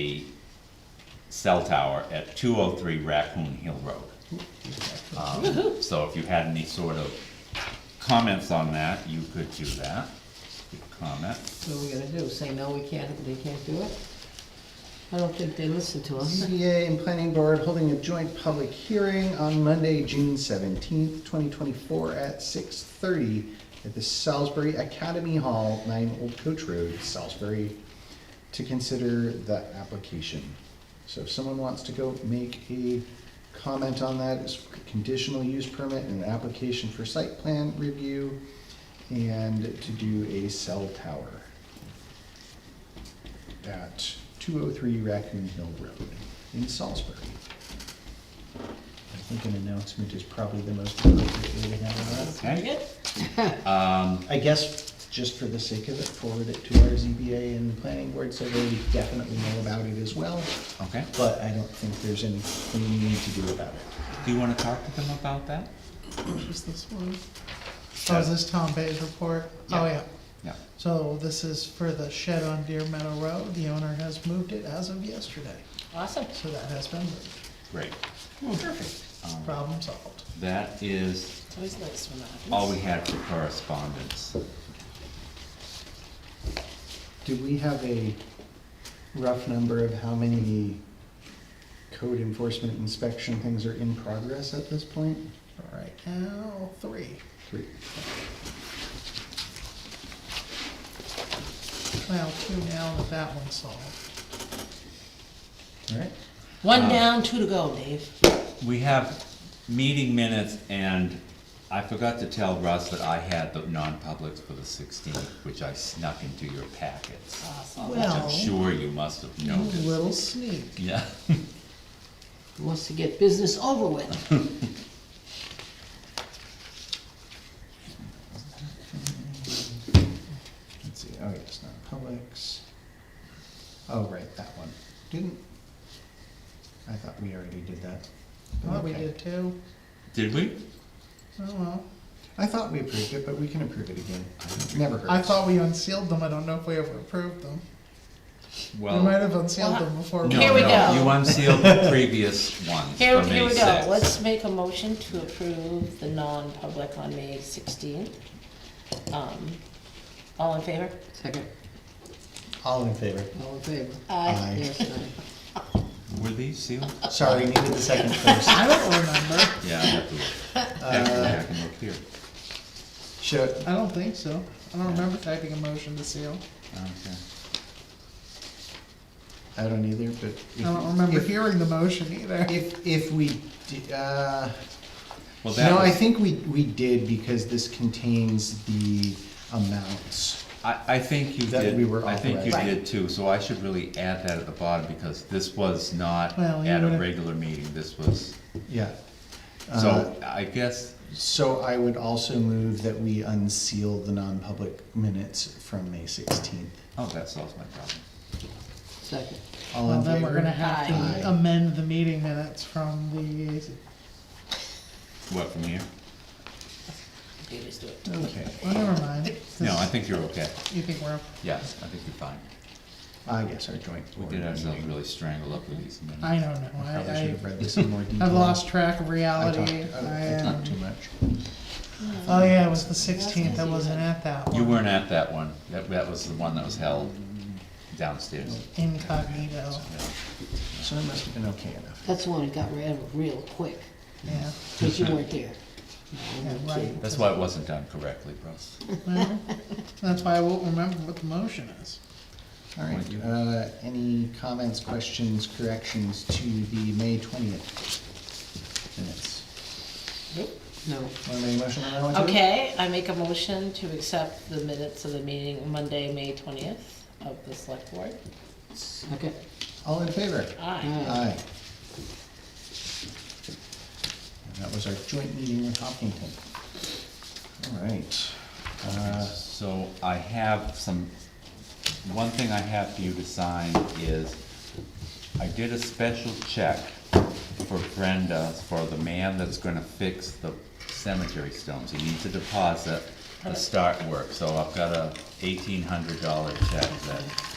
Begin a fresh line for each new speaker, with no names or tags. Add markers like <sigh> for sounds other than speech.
a cell tower at two oh three Raccoon Hill Road. Um, So if you had any sort of comments on that, you could do that, Good comment.
What are we gonna do, say no, we can't, they can't do it? I don't think they listen to us.
ZBA and Planning Board holding a joint public hearing on Monday, June seventeenth, twenty twenty-four at six thirty at the Salisbury Academy Hall, nine Old Coach Road, Salisbury, to consider the application. So if someone wants to go make a comment on that, it's conditional use permit and an application for site plan review and to do a cell tower at 203 Raccoon Hill Road in Salisbury. I think an announcement is probably the most appropriate way to handle that.
Okay?
I guess, just for the sake of it, forward it to our ZBA and planning board so they definitely know about it as well.
Okay.
But I don't think there's anything we need to do about it.
Do you wanna talk to them about that?
Just this one. Oh, is this Tom Bay's report? Oh,
Yeah.
yeah.
Yeah.
So this is for the shed on Deer Meadow Road. The owner has moved it as of yesterday,
Awesome.
so that has been moved.
Great. Perfect. Um,
Problem solved.
That is
It's always nice when that happens.
all we had for correspondence.
Do we have a rough number of how many code enforcement inspection things are in progress at this point?
All right, now, three.
Three.
Well, two now that that one's solved.
All right.
One
uh,
down, two to go, Dave.
We have meeting minutes and I forgot to tell Russ that I had the non-publics for the sixteenth, which I snuck into your packets. Which
Well-
Awesome.
I'm sure you must have
You
Mm.
noticed.
Little sneak.
Yeah.
<laughs> Wants to get business over with.
Let's see, oh, yes, not Publix. Oh, right, that one. Didn't, I thought we already did that.
Well, we
Okay.
did two.
Did we?
Oh, well.
I thought we approved it, but we can approve it again. Never hurts.
I thought we unsealed them. I don't know if we ever approved them. We
Well.
might have unsealed them before.
no,
Here we
no,
go.
You unsealed the previous ones for
Here,
May
here we go,
6th.
let's make a motion to approve the non-public on May sixteenth. Um, all in favor?
Second.
All in favor?
All in favor?
Aye.
Yes, aye.
Were these sealed?
Sorry, needed the second
<laughs>
first.
I don't remember.
Yeah, I have to
<laughs>
look. I have to go back and look here.
Should,
I don't think so. I don't remember typing a motion to seal.
Okay.
I don't either, but. if-
I don't remember
if-
hearing the motion either.
If, if we, di- uh,
Well, that
no, I
was-
think we, we did because this contains the amounts.
I, I think you
That we
did,
were
I think you
authorized.
did too, so I should really add that at the bottom, because this was not
Well, you
at a
would've-
regular meeting, this was,
Yeah. Uh,
so I guess,
So I would also move that we unseal the non-public minutes from May sixteenth.
oh, that solves my problem.
Second.
All
Well,
in
then we're gonna
favor?
have to
Aye.
amend the meeting minutes from the,
What, from here?
You just do it.
Okay,
well, never mind.
No, I think you're okay,
You think we're,
yes, I think you're fine.
I guess Ah, our joint
We
board
did ourselves
meeting.
really strangle up with these minutes.
I don't know, I,
Probably should
I,
have read this in more detail.
<laughs> I've lost track of
I
reality.
talked-
I,
I I talked
um,
too much.
oh yeah, it was the sixteenth, I wasn't at that one.
You weren't at that one, that, that was the one that was held downstairs.
Incognito,
So it must have been okay enough.
That's the one that got rid of real quick,
yeah.
because you weren't there.
yeah, right.
That's why it wasn't done correctly, Russ.
Well, That's why I won't remember what the motion is.
All right, uh, any comments, questions, corrections to the May twentieth minutes?
No.
Want to make a motion on that one too?
Okay, I make a motion to accept the minutes of the meeting Monday, May twentieth of the select board.
Second.
All in favor?
Aye.
Aye.
Aye. And that was our joint meeting with Hopkinton. All right, uh,
So I have some, one thing I have for you to sign is, I did a special check for Brenda, for the man that's gonna fix the cemetery stones. He needs a deposit to start work, so I've got a eighteen hundred dollar check that